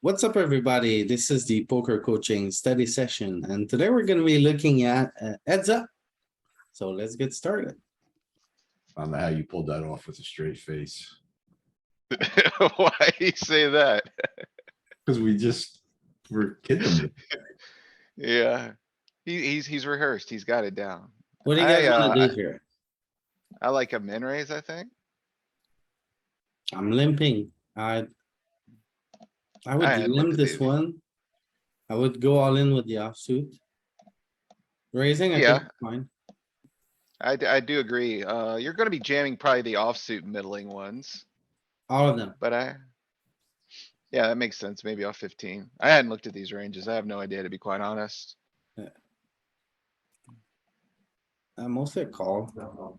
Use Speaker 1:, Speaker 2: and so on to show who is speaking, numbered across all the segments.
Speaker 1: What's up, everybody? This is the poker coaching study session, and today we're gonna be looking at uh, heads up. So let's get started.
Speaker 2: I don't know how you pulled that off with a straight face,
Speaker 3: Why you say that?
Speaker 2: because we just were kidding. them.
Speaker 3: Yeah. He, he's, he's rehearsed. He's got it down.
Speaker 1: What do you guys
Speaker 3: I,
Speaker 1: wanna
Speaker 3: uh,
Speaker 1: do here?
Speaker 3: I like a min raise, I think.
Speaker 1: I'm limping. I. I
Speaker 3: I
Speaker 1: would
Speaker 3: had
Speaker 1: limp
Speaker 3: limped,
Speaker 1: this
Speaker 3: baby.
Speaker 1: one. I would go all in with the offsuit. Raising, I think,
Speaker 3: Yeah.
Speaker 1: it's fine.
Speaker 3: I, d- I do agree. Uh, you're gonna be jamming probably the offsuit middling ones,
Speaker 1: All of them.
Speaker 3: but I. Yeah, that makes sense. Maybe off fifteen. I hadn't looked at these ranges. I have no idea, to be quite honest.
Speaker 1: Uh, mostly a call.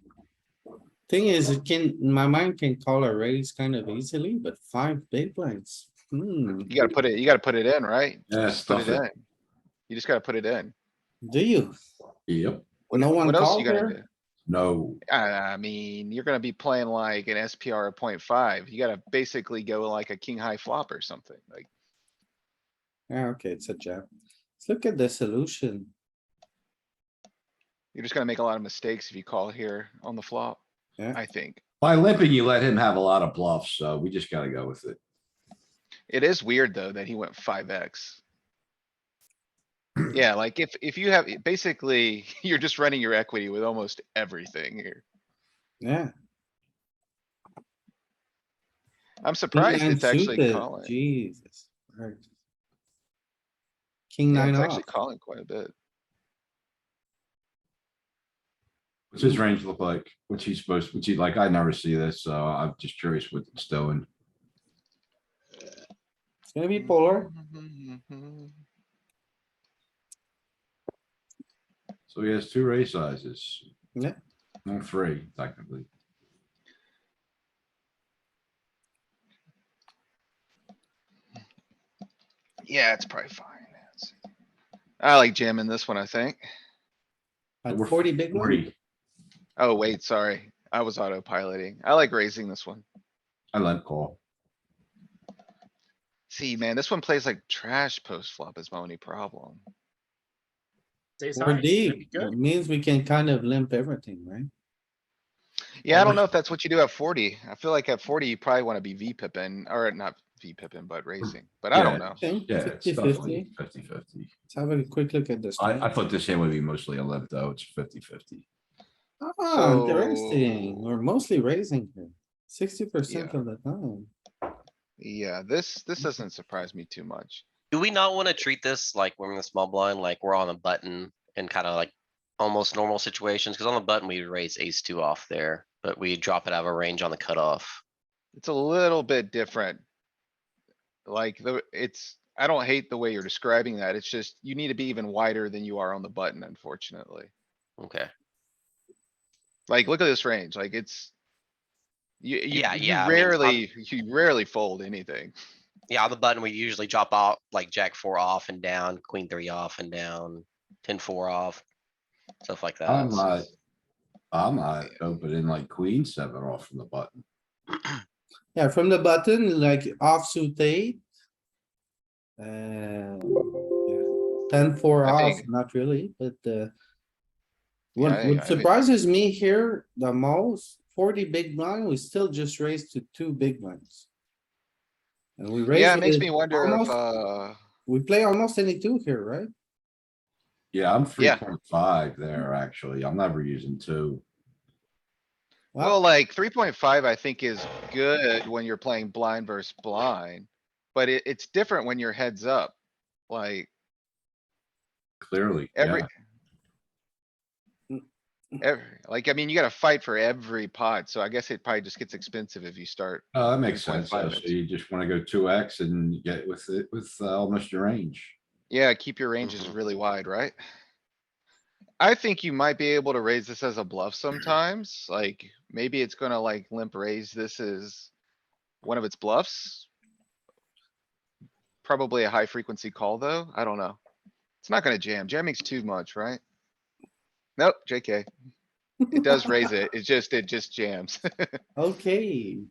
Speaker 1: Thing is, it can, my mind can call a raise kind of easily, but five big blinds. Hmm,
Speaker 3: You gotta put it, you gotta put it in, right?
Speaker 2: Yeah,
Speaker 3: Put
Speaker 2: stuff
Speaker 3: it
Speaker 2: it.
Speaker 3: in. You just gotta put it in.
Speaker 1: do you?
Speaker 2: Yep,
Speaker 1: No one
Speaker 3: What else
Speaker 1: called
Speaker 3: you gonna
Speaker 1: there?
Speaker 3: do?
Speaker 2: no,
Speaker 3: I mean, you're gonna be playing like an SPR of 0.5. You gotta basically go like a king high flop or something. Like,
Speaker 1: Yeah, okay, it's a jab. Let's look at the solution.
Speaker 3: you're just gonna make a lot of mistakes if you call here on the flop,
Speaker 1: Yeah.
Speaker 3: I think.
Speaker 2: by limping, you let him have a lot of bluffs, so we just gotta go with it.
Speaker 3: It is weird, though, that he went five X. Yeah, like if, if you have, basically, you're just running your equity with almost everything here.
Speaker 1: Yeah.
Speaker 3: I'm surprised
Speaker 1: King nine
Speaker 3: it's actually
Speaker 1: suited,
Speaker 3: calling.
Speaker 1: Jesus. Christ. King
Speaker 3: Yeah,
Speaker 1: nine oh.
Speaker 3: It's
Speaker 1: off.
Speaker 3: actually calling quite a bit.
Speaker 2: What's his range look like? What's he supposed, what's he like? I never see this, so I'm just curious what it's doing.
Speaker 1: It's gonna be polar.
Speaker 3: Mm-hmm.
Speaker 2: So he has two raise sizes.
Speaker 1: Yeah.
Speaker 2: No, three technically.
Speaker 3: Yeah, it's probably fine. Let's see. I like jamming this one, I think.
Speaker 1: At
Speaker 2: We're
Speaker 1: forty big one.
Speaker 2: Forty,
Speaker 3: Oh, wait, sorry. I was autopiloting. I like raising this one.
Speaker 2: I limp call.
Speaker 3: See, man, this one plays like trash post flop is my only problem.
Speaker 4: Ace
Speaker 1: We're
Speaker 4: high, it's gonna be
Speaker 1: deep. It
Speaker 4: good.
Speaker 1: means we can kind of limp everything, right?
Speaker 3: Yeah, I don't
Speaker 2: Almost-
Speaker 3: know if that's what you do at forty. I feel like at forty, you probably wanna be V pippin, or not V pippin,
Speaker 5: Hmm.
Speaker 3: but raising, but I don't know.
Speaker 1: Think
Speaker 2: Yeah, it's
Speaker 1: 50
Speaker 2: definitely fifty fifty.
Speaker 1: Let's have a quick look at this.
Speaker 2: I, I thought this hand would be mostly a limp though. It's fifty fifty.
Speaker 1: Ah, interesting.
Speaker 3: So-
Speaker 1: We're mostly raising here. Sixty percent
Speaker 3: Yeah.
Speaker 1: of the time.
Speaker 3: Yeah, this, this
Speaker 5: Mm-hmm.
Speaker 3: doesn't surprise me too much.
Speaker 5: Do we not wanna treat this like we're in the small blind, like we're on a button and kinda like almost normal situations? Cause on the button, we raise ace two off there, but we drop it out of range on the cutoff.
Speaker 3: It's a little bit different. Like, the, it's, I don't hate the way you're describing that. It's just, you need to be even wider than you are on the button, unfortunately.
Speaker 5: Okay,
Speaker 3: Like, look at this range, like it's. You, you,
Speaker 5: Yeah,
Speaker 3: you
Speaker 5: yeah, I mean, I'm-
Speaker 3: rarely, you rarely fold anything.
Speaker 5: yeah, on the button, we usually drop out like jack four off and down, queen three off and down, ten four off. Stuff like
Speaker 2: I'm uh,
Speaker 5: that.
Speaker 2: not. I'm not opening like queen seven off from the button.
Speaker 1: Yeah, from the button, like offsuit eight. Uh, yeah, ten four
Speaker 3: I
Speaker 1: off,
Speaker 3: think-
Speaker 1: not really, but uh.
Speaker 3: Yeah,
Speaker 1: What
Speaker 3: I- I
Speaker 1: what
Speaker 3: think-
Speaker 1: surprises me here the most, forty big blind, we still just raised to two big blinds. And we raised.
Speaker 3: Yeah, it makes
Speaker 1: with-
Speaker 3: me wonder if,
Speaker 1: almost-
Speaker 3: uh,
Speaker 1: We play almost any two here, right?
Speaker 2: Yeah, I'm three
Speaker 3: Yeah.
Speaker 2: point five there, actually. I'm never using two.
Speaker 3: well, like three point five, I think is good when you're playing blind versus blind. But it, it's different when you're heads up, like
Speaker 2: Clearly,
Speaker 3: every.
Speaker 2: yeah,
Speaker 3: Every, like, I mean, you gotta fight for every pot, so I guess it probably just gets expensive if you start.
Speaker 2: Oh, that makes sense. So
Speaker 3: 3.5
Speaker 2: so
Speaker 3: is-
Speaker 2: you just wanna go two X and get with it with uh, almost your range.
Speaker 3: Yeah, keep your ranges
Speaker 5: Mhm.
Speaker 3: really wide, right? I think you might be able to raise this as a bluff sometimes, like, maybe it's gonna like limp raise this is one of its bluffs. Probably a high frequency call, though, I don't know. It's not gonna jam, jamming's too much, right? Nope, JK, it does raise it, it just, it just jams.
Speaker 1: Okay.